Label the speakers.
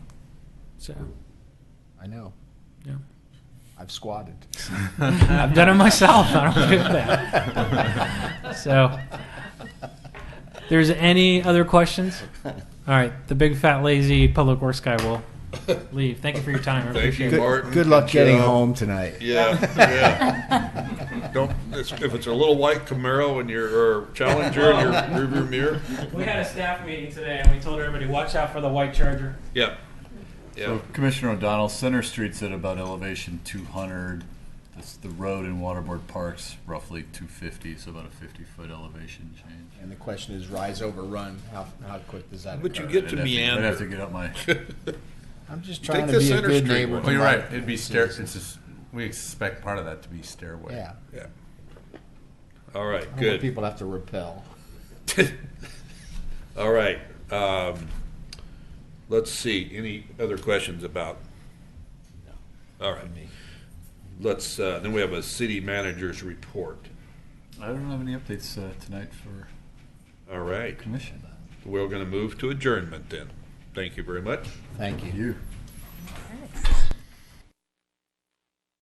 Speaker 1: So,
Speaker 2: I know.
Speaker 1: yeah.
Speaker 2: I've squatted.
Speaker 1: I've done it myself. I don't do that. So, there's any other questions? All right. The big fat lazy public works guy will leave. Thank you for your time. I
Speaker 3: Thank
Speaker 1: appreciate
Speaker 3: you,
Speaker 1: it.
Speaker 3: Martin. uh,
Speaker 2: Good, good luck getting
Speaker 3: job.
Speaker 2: home tonight.
Speaker 3: Yeah, yeah. Don't, it's- if it's a little white Camaro and your, or Challenger in your rearview mirror,
Speaker 1: We had a staff meeting today, and we told everybody, watch out for the white charger.
Speaker 3: yeah, yeah.
Speaker 4: So Commissioner O'Donnell, Center Street's at about elevation 200. That's the road in Waterboard Park's roughly 250, so about a 50-foot elevation change.
Speaker 2: And the question is rise over run. How, how quick does that
Speaker 3: But you
Speaker 2: occur?
Speaker 3: get to
Speaker 4: I'd have to- I'd have to
Speaker 3: meander.
Speaker 4: get up my,
Speaker 2: I'm just
Speaker 3: Take
Speaker 2: trying to
Speaker 3: the
Speaker 2: be a
Speaker 3: Center Oh,
Speaker 2: good
Speaker 3: Street
Speaker 2: neighbor.
Speaker 3: one.
Speaker 2: to
Speaker 5: Well, you're
Speaker 2: my
Speaker 5: right. It'd be stair. It's
Speaker 2: citizens.
Speaker 5: just we expect part of that to be stairway.
Speaker 2: Yeah.
Speaker 3: Yeah. All right,
Speaker 2: I don't want
Speaker 3: good.
Speaker 2: People have to repel.
Speaker 3: All right. Um, let's see. Any other questions about? All right. Let's. Uh, then we have a city manager's report.
Speaker 4: I don't have any updates uh, tonight for
Speaker 3: All right.
Speaker 4: commission.
Speaker 3: We're going to move to adjournment then. Thank you very much.
Speaker 2: Thank you.
Speaker 4: You?